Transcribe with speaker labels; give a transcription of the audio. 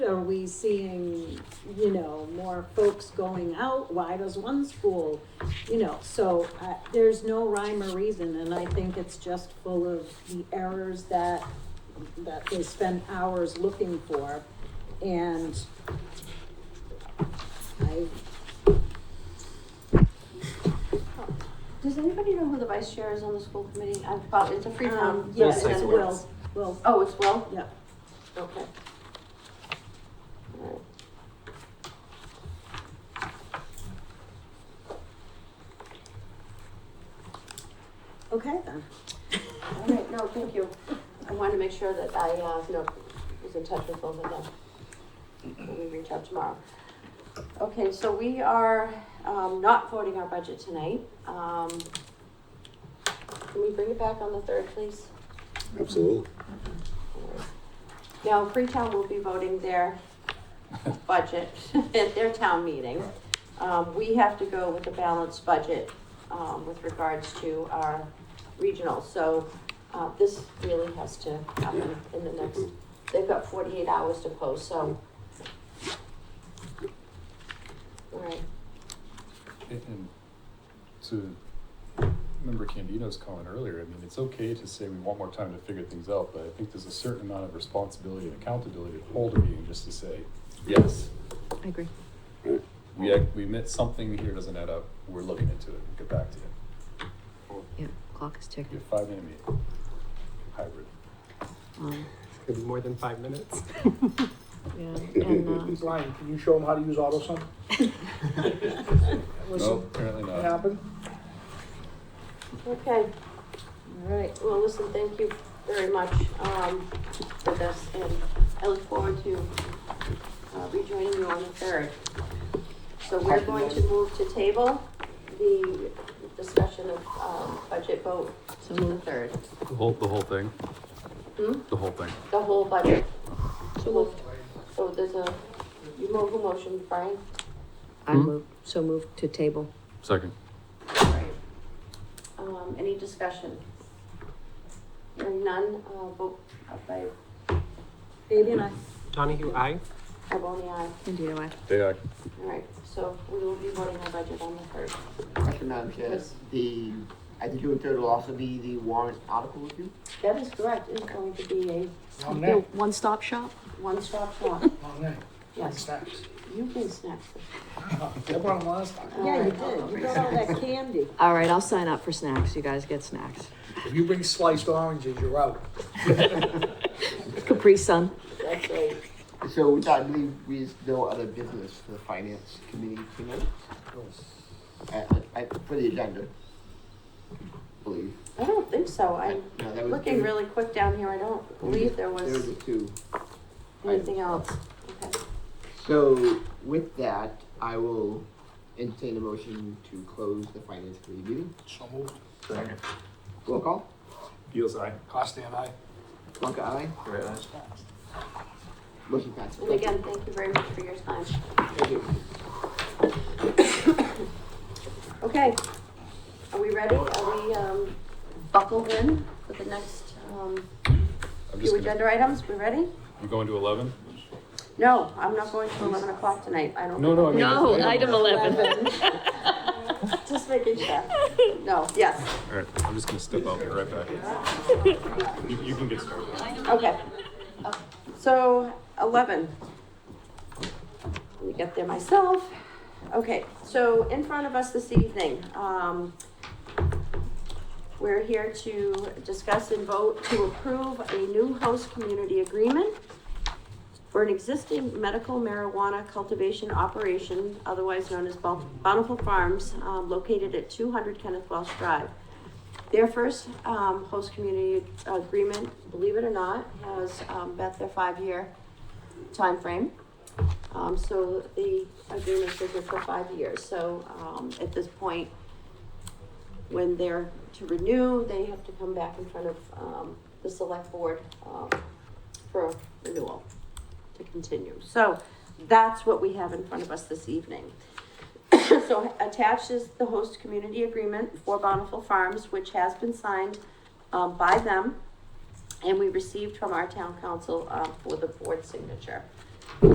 Speaker 1: are we seeing, you know, more folks going out? Why does one school, you know, so, uh, there's no rhyme or reason, and I think it's just full of the errors that, that they spend hours looking for, and I, um,
Speaker 2: Does anybody know who the vice chair is on the school committee? I've probably, it's a
Speaker 1: um,
Speaker 2: Freetown.
Speaker 1: yes,
Speaker 3: Yes,
Speaker 1: and
Speaker 3: it
Speaker 1: will, will,
Speaker 2: Oh, it's Will?
Speaker 1: yeah.
Speaker 2: Okay.
Speaker 1: Okay, then.
Speaker 2: All right, no, thank you. I wanted to make sure that I, uh, you know, was in touch with both of them. When we reach out tomorrow. Okay, so we are, um, not voting our budget tonight. Um, can we bring it back on the third, please?
Speaker 4: Absolutely.
Speaker 2: Now, Freetown will be voting their budget at their town meeting. Um, we have to go with a balanced budget, um, with regards to our regional, so, uh, this really has to happen in the next, they've got forty-eight hours to post, so. All right,
Speaker 3: And- And to remember Candido's comment earlier, I mean, it's okay to say we want more time to figure things out, but I think there's a certain amount of responsibility and accountability to hold a meeting just to say, yes,
Speaker 5: I agree.
Speaker 3: we, ac- we admit something here doesn't add up, we're looking into it, we'll get back to you.
Speaker 5: Yeah, clock is
Speaker 3: Your
Speaker 5: ticking.
Speaker 3: five minute meeting, hybrid.
Speaker 5: Um,
Speaker 6: Could be more than five minutes.
Speaker 5: yeah, and, uh,
Speaker 7: Ryan, can you show them how to use AutoSum?
Speaker 3: No,
Speaker 7: Listen,
Speaker 3: apparently
Speaker 7: it
Speaker 3: not.
Speaker 7: happened.
Speaker 2: okay.
Speaker 1: All right,
Speaker 2: Well, listen, thank you very much um, for this, and I look forward to uh, rejoining you on the third. So we're going to move to table the discussion of um, budget vote
Speaker 5: so
Speaker 2: to the
Speaker 5: move.
Speaker 2: third.
Speaker 3: The whole, the whole thing,
Speaker 2: Hmm?
Speaker 3: the whole thing.
Speaker 2: The whole budget.
Speaker 5: So moved.
Speaker 2: So there's a, you move who motion, Brian?
Speaker 5: I move, so move to table.
Speaker 3: Second.
Speaker 2: Um, Any discussion? Hearing none, uh, vote by,
Speaker 1: Fabian, I,
Speaker 6: Donahue, aye?
Speaker 2: by Bonnie, aye.
Speaker 5: Indeed, I.
Speaker 3: Day I,
Speaker 2: All right, so we will be voting our budget on the third.
Speaker 8: Thank you, Madam Chair. The, I think your third will also be the warrant article review?
Speaker 2: That is correct, it's going to be a
Speaker 7: Long neck,
Speaker 5: One-stop shop?
Speaker 2: one-stop shop.
Speaker 7: long neck, like
Speaker 2: Yes,
Speaker 7: snacks.
Speaker 2: you can snack.
Speaker 7: I brought them last time.
Speaker 1: yeah, you did, you got all that candy.
Speaker 5: All right, I'll sign up for snacks. You guys get snacks.
Speaker 7: If you bring sliced oranges, you're out.
Speaker 5: Capri Sun.
Speaker 2: That's right.
Speaker 8: So with that, I believe we, no other business for the finance committee tonight, I, I, for the agenda. Believe.
Speaker 2: I don't think so, I'm
Speaker 8: No, that was
Speaker 2: looking
Speaker 8: two.
Speaker 2: really quick down here, I don't believe there
Speaker 8: There
Speaker 2: was
Speaker 8: was two.
Speaker 2: anything else. Okay.
Speaker 8: So with that, I will entertain a motion to close the finance committee meeting.
Speaker 7: So moved.
Speaker 8: Roll call.
Speaker 3: Deals I.
Speaker 7: Costigan, aye.
Speaker 8: Plonka, aye. Motion passed.
Speaker 2: And again, thank you very much for your time.
Speaker 8: Thank you.
Speaker 2: Okay, are we ready? Are we, um, buckled in for the next, um,
Speaker 3: I'm just
Speaker 2: few
Speaker 3: gonna,
Speaker 2: agenda items? We ready?
Speaker 3: you going to eleven?
Speaker 2: No, I'm not going to eleven o'clock tonight, I don't.
Speaker 3: No, no, I mean.
Speaker 5: No,
Speaker 3: I
Speaker 5: item
Speaker 3: don't-
Speaker 5: eleven.
Speaker 2: Just making sure. No, yes.
Speaker 3: All right, I'm just gonna step out, be right back. You, you can get started.
Speaker 2: Okay. So, eleven. Let me get there myself. Okay, so in front of us this evening, um, we're here to discuss and vote to approve a new host community agreement for an existing medical marijuana cultivation operation, otherwise known as Boun- Bountiful Farms, um, located at two hundred Kenneth Welsh Drive. Their first um, host community agreement, believe it or not, has um, met their five-year timeframe. Um, so the agreement is good for five years. So um, at this point, when they're to renew, they have to come back in front of um, the select board um, for renewal to continue. So that's what we have in front of us this evening. So attached is the host community agreement for Bountiful Farms, which has been signed, um, by them. And we received from our town council, uh, for the board signature.